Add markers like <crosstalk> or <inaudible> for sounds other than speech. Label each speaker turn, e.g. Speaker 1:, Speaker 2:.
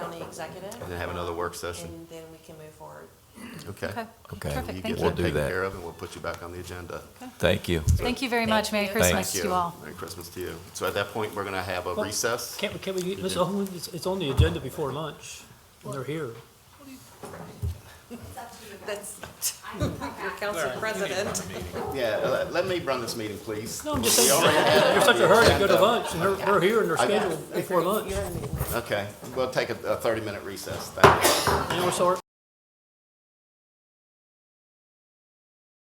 Speaker 1: executive.
Speaker 2: And then have another work session.
Speaker 1: And then we can move forward.
Speaker 2: Okay.
Speaker 3: Okay.
Speaker 4: Okay.
Speaker 2: You
Speaker 3: Perfect,
Speaker 2: get
Speaker 3: thank
Speaker 2: that
Speaker 4: We'll
Speaker 3: you.
Speaker 4: do
Speaker 2: taken
Speaker 4: that.
Speaker 2: care of, and we'll put you back on the agenda.
Speaker 4: Thank you.
Speaker 3: Thank you very much. Merry
Speaker 1: you.
Speaker 3: Christmas
Speaker 2: Thank
Speaker 3: to you all.
Speaker 2: Merry Christmas to you. So at that point, we're going to have a
Speaker 5: Well,
Speaker 2: recess.
Speaker 5: Can't we, can we, Ms. Owen, it's, it's on the agenda before lunch, and they're here.
Speaker 1: That's, <laughs> your council president.
Speaker 2: Yeah, uh, let me run this meeting, please.
Speaker 5: No, I'm just saying, you're such a hurry to go to lunch, and they're, they're here and they're
Speaker 2: I got it.
Speaker 5: scheduled before lunch.
Speaker 1: You're in the meeting.
Speaker 2: Okay, we'll take a 30-minute recess. Thank you.
Speaker 5: And we're sorry,